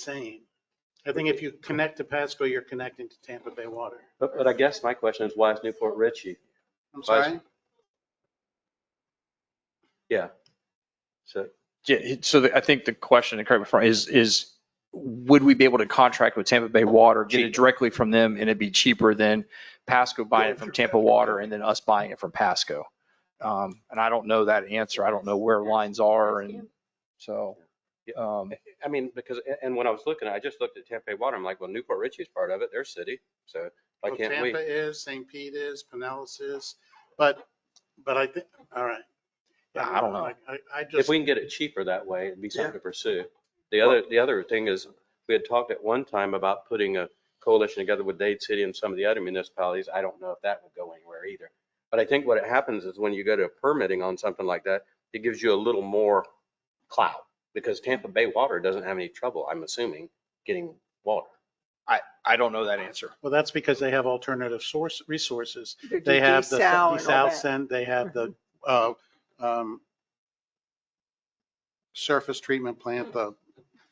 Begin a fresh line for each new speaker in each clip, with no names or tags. same. I think if you connect to Pasco, you're connecting to Tampa Bay water.
But, but I guess my question is why is Newport Ritchie?
I'm
Why is-
sorry?
So,
Yeah, it- so the- I think the question, and correct me if I'm wrong, is, is would we be able to contract with Tampa Bay Water, get it
Cheaper.
directly from them, and it'd be cheaper than Pasco buying
Going
it from
through
Tampa
Pasco.
Water and then us buying it from Pasco? Um, And I don't know that answer. I don't know where lines are and so. um,
I mean, because, and- and when I was looking, I just looked at Tampa Bay Water. I'm like, well, Newport Ritchie's part of it, their city. So why
Well,
can't we?
Tampa is, St. Pete is, Pinellas is, but, but I think, all right.
Yeah, I don't know.
Like, I, I
If
just,
we can get it cheaper that way, it'd be something to pursue. The other, the other thing is, we had talked at one time about putting a coalition together with Dade City and some of the other municipalities. I don't know if that would go anywhere either. But I think what happens is when you go to permitting on something like that, it gives you a little more clout because Tampa Bay Water doesn't have any trouble, I'm assuming, getting water.
I don't know that answer.
well, that's because they have alternative source, resources.
They
They have the
desal and all
desal
that. Mm-hmm.
send, they have the, uh, um, surface treatment
Mm.
plant, the,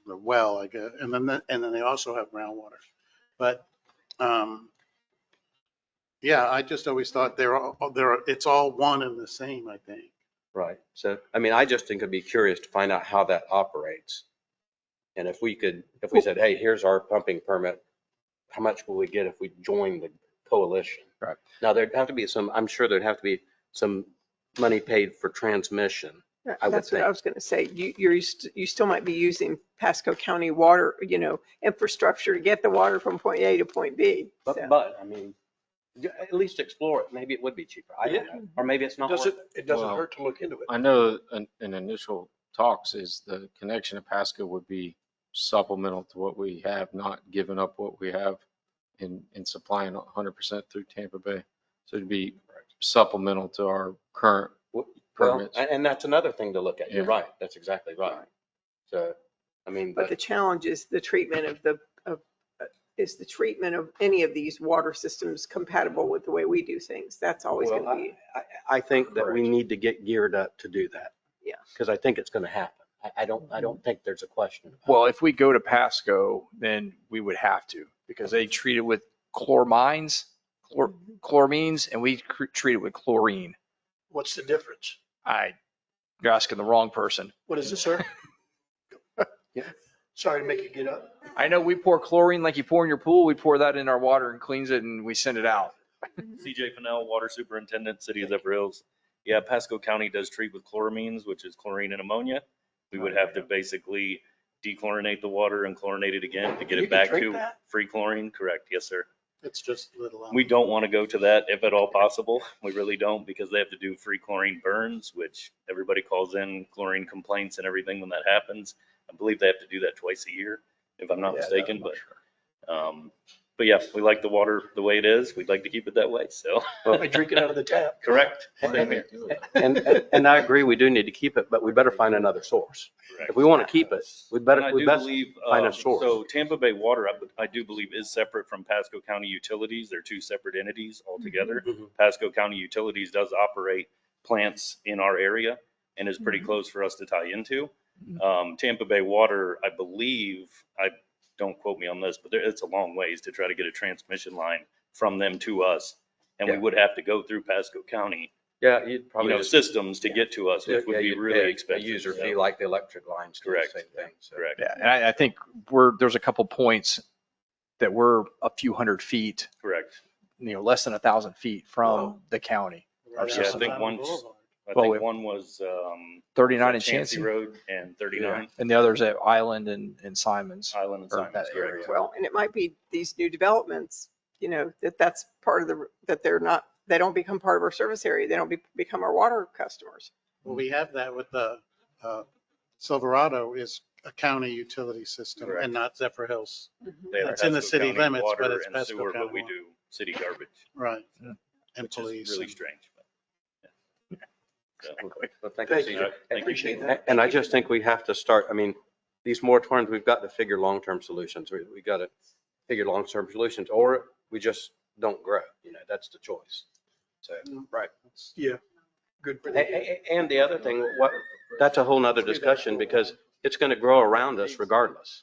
the well, I guess, and then, the- and then they also have groundwater. But, um, yeah, I just always thought they're all, oh, they're, it's all one and the same, I think.
Right. So, I mean, I just think it'd be curious to find out how that operates. And if we could, if we said, hey, here's our pumping permit, how much will we get if we join the coalition?
Right.
Now, there'd have to be some, I'm sure there'd have to be some money paid for transmission.
That-
I would
That's what
think.
I was going to say. You, you're, st- you still might be using Pasco County water, you know, infrastructure to get the water from point A to point B.
But,
So-
but, I mean, yeah, at least explore it. Maybe it would be cheaper. I don't know. Or maybe it's not.
Does
worth
it,
it.
it doesn't
Well-
hurt to look into it.
I know in, in initial talks is the connection to Pasco would be supplemental to what we have, not giving up what we have in, in supplying hundred percent through Tampa Bay. So it'd be supplemental to our current
Well,
permits.
And, and that's another thing to look at. You're
Yeah.
right. That's exactly right. So, I mean,
But the
but
challenge is the treatment of the, of, uh, is the treatment of any of these water systems compatible with the way we do things? That's always
Well,
going to be,
I, I think that we need to get geared up to do that.
Yeah.
Because I think it's going to happen. I, I don't, I don't think there's a question. about it.
Well, if we go to Pasco, then we would have to because they treat it with chloramines, chlor, chloramines, and we cr- treat it with chlorine.
What's the difference?
I, you're asking the wrong person.
What is it, sir? Sorry to make you get up.
I know we pour chlorine like you pour in your pool. We pour that in our water and cleans it and we send it out.
CJ Fennell, Water Superintendent, City of Zephyr Hills. Yeah, Pasco County does treat with chloramines, which is chlorine and ammonia. We would have to basically dechlorinate the water and chlorinate it again to get
You can
it back
drink
to
that?
free chlorine. Correct, yes, sir.
It's just little.
We don't want to go to that if at all possible. We really don't because they have to do free chlorine burns, which everybody calls in chlorine complaints and everything when that happens. I believe they have to do that twice a year, if I'm not mistaken, but, um, but yeah, we like the water the way it is. We'd like to keep it that way, so,
I drink it out of the tap.
correct.
Same here. And, and- and I agree, we do need to keep it, but we better find another source. If we want to keep it, we
And I
better, we
do
best,
believe,
find a
um,
source.
So Tampa Bay Water, I, I do believe is separate from Pasco County Utilities. They're two separate entities altogether.
Mhm.
Pasco County Utilities does operate plants in our area and is pretty close for us to tie into.
Mm-hmm.
Um, Tampa Bay Water, I believe, I, don't quote me on this, but there- it's a long ways to try to get a transmission line from them to us. And we
Yeah.
would have to go through Pasco County,
yeah, you'd
you
probably.
know,
just-
systems to get to us,
yeah,
which would be
you'd pay
really
a
expensive.
User
so,
fee like the electric lines. do the
Correct.
Same thing. so.
Correct.
Yeah, and I, I think we're, there's a couple points that we're a few hundred feet,
Correct.
you know, less than a thousand feet from
Wow.
the county.
Yeah, I think once- I
Well,
think
it-
one was, um.
Thirty-nine and
Chancey
Chancy.
Road and thirty-nine
And the other's at Island and, and Simons.
Island and
Or
Simons,
that
correct?
area.
well, and it might be these new developments, you know, that that's part of the, that they're not, they don't become part of our service area. They don't be, become our water customers.
Well, we have that with the, uh, Silverado is a county utility system
Correct.
and not Zephyr Hills.
Mm-hmm.
They have
It's in the
Pasco
city
County
limits, but
water
it's
and
Pasco
sewer,
County
But we
water.
do city garbage,
Right.
Yeah.
And
which is
police.
really
and-
strange.
Well, thank you,
Thank you.
CJ.
Thank you.
Appreciate
And-
that.
And I just think we have to start, I mean, these moratoriums, we've got to figure long-term solutions. We, we got to figure long-term solutions, or we just don't grow. You know, that's the choice. So, right.
Yeah. Good.
A- a- a- And the other thing, what, that's a whole nother discussion because it's going to grow around us regardless.